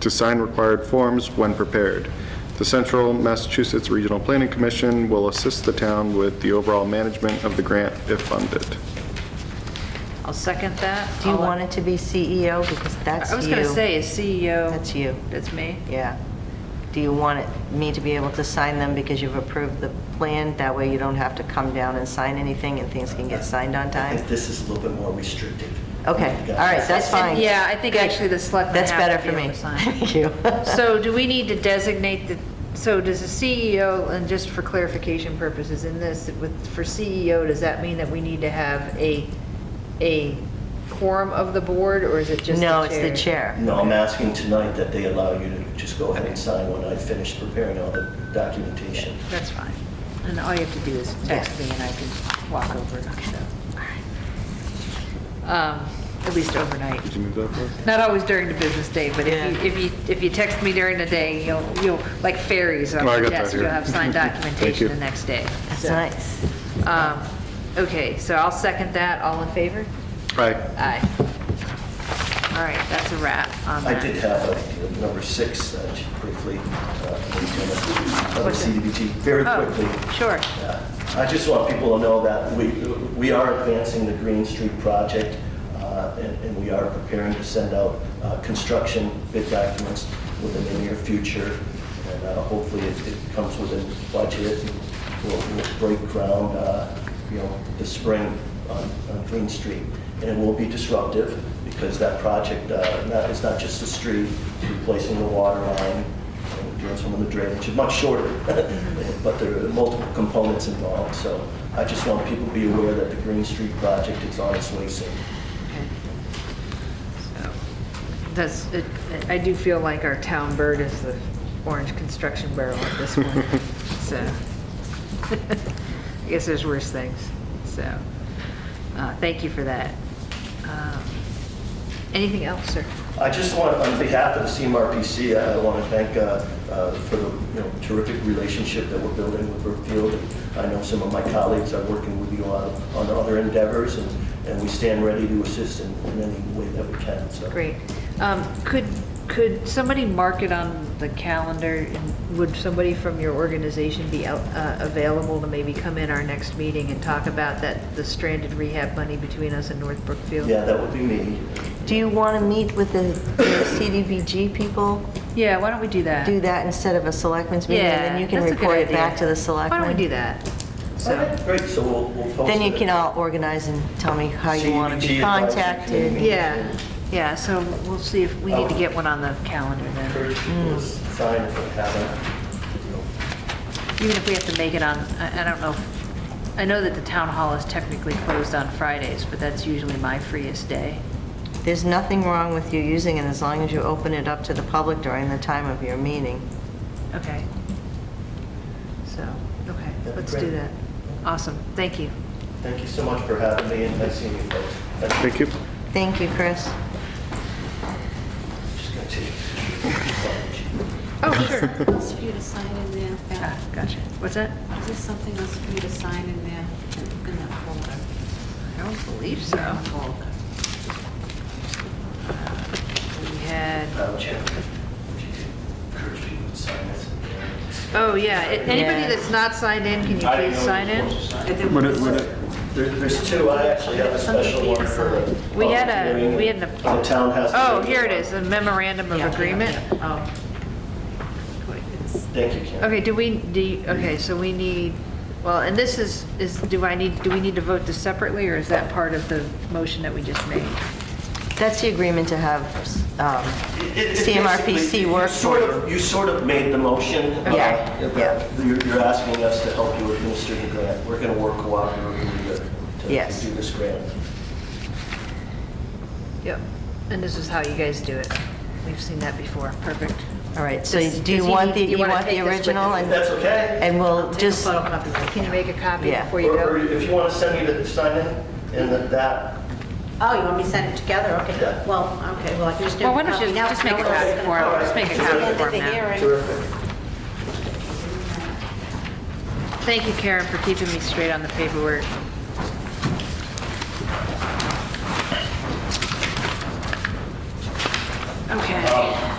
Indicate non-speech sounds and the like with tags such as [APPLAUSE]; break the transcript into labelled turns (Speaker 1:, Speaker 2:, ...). Speaker 1: to sign required forms when prepared. The Central Massachusetts Regional Planning Commission will assist the town with the overall management of the grant if funded.
Speaker 2: I'll second that.
Speaker 3: Do you
Speaker 2: All-
Speaker 3: want it to be CEO? Because that's you.
Speaker 2: I was going to say, is CEO.
Speaker 3: That's you.
Speaker 2: That's me.
Speaker 3: Yeah. Do you want it- me to be able to sign them because you've approved the plan? That way you don't have to come down and sign anything and things can get signed on
Speaker 4: I
Speaker 3: time?
Speaker 4: think this is a little bit more restrictive.
Speaker 3: Okay, all right, that's fine.
Speaker 2: Yeah, I think actually the selectmen
Speaker 3: That's
Speaker 2: have to
Speaker 3: better
Speaker 2: be
Speaker 3: for me.
Speaker 2: able to sign.
Speaker 3: [LAUGHS] Thank you. [LAUGHS]
Speaker 2: So do we need to designate the, so does the CEO, and just for clarification purposes in this, with, for CEO, does that mean that we need to have a, a quorum of the board, or is it just the chair?
Speaker 3: No, it's the chair.
Speaker 4: No, I'm asking tonight that they allow you to just go ahead and sign when I finish preparing all the documentation.
Speaker 2: That's fine. And all you have to do is text me and I can walk over and so. Um, At least overnight.
Speaker 1: Did you move that forward?
Speaker 2: Not always during the business day, but if you, if you, if you text me during the day, you'll, you'll, like ferries on
Speaker 1: Oh, I
Speaker 2: your
Speaker 1: got that
Speaker 2: desk, you'll
Speaker 1: here. [LAUGHS]
Speaker 2: have signed
Speaker 1: Thank
Speaker 2: documentation
Speaker 1: you.
Speaker 2: the next day.
Speaker 3: That's
Speaker 2: So,
Speaker 3: nice.
Speaker 2: um, Okay, so I'll second that. All in favor?
Speaker 1: Aye.
Speaker 2: Aye. All right, that's a wrap on
Speaker 4: I
Speaker 2: that.
Speaker 4: did have a number six, uh, briefly, uh, on the
Speaker 2: What's it?
Speaker 4: CDBG, very
Speaker 2: Oh,
Speaker 4: quickly.
Speaker 2: Sure.
Speaker 4: Uh, I just want people to know that we, we are advancing the Green Street project, uh, and and we are preparing to send out uh, construction bid documents within the near future, and uh, hopefully it it comes within budget, and we'll we'll break ground, uh, you know, this spring on on Green Street. And it will be disruptive, because that project, uh, not- it's not just the street, replacing the water line, and doing some of the drainage, much shorter, [LAUGHS] but there are multiple components involved, so I just want people to be aware that the Green Street project is on its way soon.
Speaker 2: Okay. So, Does, it- I do feel like our town bird is the orange construction barrel at this point, so. [LAUGHS] I guess there's worse things, so, uh, thank you for that. Um, Anything else, sir?
Speaker 4: I just want, on behalf of the CMRPC, I want to thank uh, uh, for the you know, terrific relationship that we're building with Brookfield. I know some of my colleagues are working with you on on other endeavors, and and we stand ready to assist in in any way that we can, so.
Speaker 2: Great. Um, Could, could somebody mark it on the calendar? And Would somebody from your organization be out- uh, available to maybe come in our next meeting and talk about that, the stranded rehab money between us and North Brookfield?
Speaker 4: Yeah, that would be me.
Speaker 3: Do you want to meet with the the CDBG people?
Speaker 2: Yeah, why don't we do that?
Speaker 3: Do that instead of a selectmen's meeting? And then you can
Speaker 2: that's a good
Speaker 3: report it back
Speaker 2: idea.
Speaker 3: to the selectmen?
Speaker 2: Why don't we do that? So,
Speaker 4: Great, so we'll we'll post
Speaker 3: Then you
Speaker 4: it.
Speaker 3: can all organize and tell me how you want to be
Speaker 4: CDBG advisory
Speaker 3: contacted.
Speaker 4: committee.
Speaker 2: yeah, yeah, so we'll see if, we need to get one on the calendar then.
Speaker 4: encourage people to sign if they haven't. you know.
Speaker 2: Even if we have to make it on, I I don't know, if- I know that the town hall is technically closed on Fridays, but that's usually my freest day.
Speaker 3: There's nothing wrong with you using it as long as you open it up to the public during the time of your meeting.
Speaker 2: Okay. So, okay,
Speaker 4: That'd be
Speaker 2: let's do
Speaker 4: great.
Speaker 2: that. Awesome, thank you.
Speaker 4: Thank you so much for having me and nice seeing you folks. Thank
Speaker 1: Thank you.
Speaker 3: Thank you, Chris.
Speaker 4: you. Just gonna take-
Speaker 2: Oh,
Speaker 5: [LAUGHS]
Speaker 2: sure.
Speaker 6: That's for you to sign in there.
Speaker 2: Ah,
Speaker 6: Yeah.
Speaker 2: Gotcha. What's that?
Speaker 6: Is there something else for you to sign in there, in that folder?
Speaker 2: I don't believe
Speaker 6: That
Speaker 2: so.
Speaker 6: Folder.
Speaker 2: We had
Speaker 4: Madam Chair, if uh, you could encourage people to sign this.
Speaker 2: Oh, yeah. A- Anybody
Speaker 3: Yeah.
Speaker 2: that's not signed in, can you please sign in?
Speaker 1: Would it- would it-
Speaker 4: There- There's two, I actually have a special one for the.
Speaker 2: We had a, we had an.
Speaker 4: The town has. to-
Speaker 2: Oh, here it is, the memorandum of
Speaker 6: Yeah, yeah,
Speaker 2: agreement.
Speaker 6: yeah. Oh. What is-
Speaker 4: Thank you, Karen.
Speaker 2: Okay, do we, do, you- okay, so we need, well, and this is, is, do I need, do we need to vote this separately, or is that part of the motion that we just made?
Speaker 3: That's the agreement to have um,
Speaker 4: It- it- it basically-
Speaker 3: CMRPC
Speaker 4: you
Speaker 3: work
Speaker 4: sort
Speaker 3: for
Speaker 4: of-
Speaker 3: you.
Speaker 4: You sort of made the motion. uh,
Speaker 3: Yeah, yeah.
Speaker 4: that You're you're asking us to help you administer the grant. We're going to work cooperatively to- to
Speaker 3: Yes.
Speaker 4: do this grant.
Speaker 2: Yep. And this is how you guys do it. We've seen that before. Perfect.
Speaker 3: All right, so
Speaker 2: Does-
Speaker 3: do you
Speaker 2: does he
Speaker 3: want the,
Speaker 2: need- you
Speaker 3: you
Speaker 2: wanna
Speaker 3: want
Speaker 2: take this
Speaker 3: the
Speaker 2: with
Speaker 3: original?
Speaker 2: you?
Speaker 4: If
Speaker 3: And
Speaker 4: that's okay?
Speaker 3: and we'll
Speaker 2: Take a
Speaker 3: just,
Speaker 2: photocopy. Can you make a copy
Speaker 3: Yeah.
Speaker 2: before you
Speaker 4: Or or
Speaker 2: go?
Speaker 4: if you want to send me the sign in, and that- that,
Speaker 5: Oh, you want me to send it together? Okay,
Speaker 4: Yeah.
Speaker 5: well, okay, well, I can just do.
Speaker 2: Well, why don't
Speaker 5: copy
Speaker 2: you
Speaker 5: now.
Speaker 2: just make a
Speaker 5: No,
Speaker 2: copy
Speaker 5: it's-
Speaker 2: for him? Just make a
Speaker 5: It's the
Speaker 2: copy
Speaker 5: end
Speaker 2: for
Speaker 5: of
Speaker 2: him
Speaker 5: the
Speaker 2: now.
Speaker 5: hearing.
Speaker 4: terrific.
Speaker 2: Thank you, Karen, for keeping me straight on the paperwork. Okay.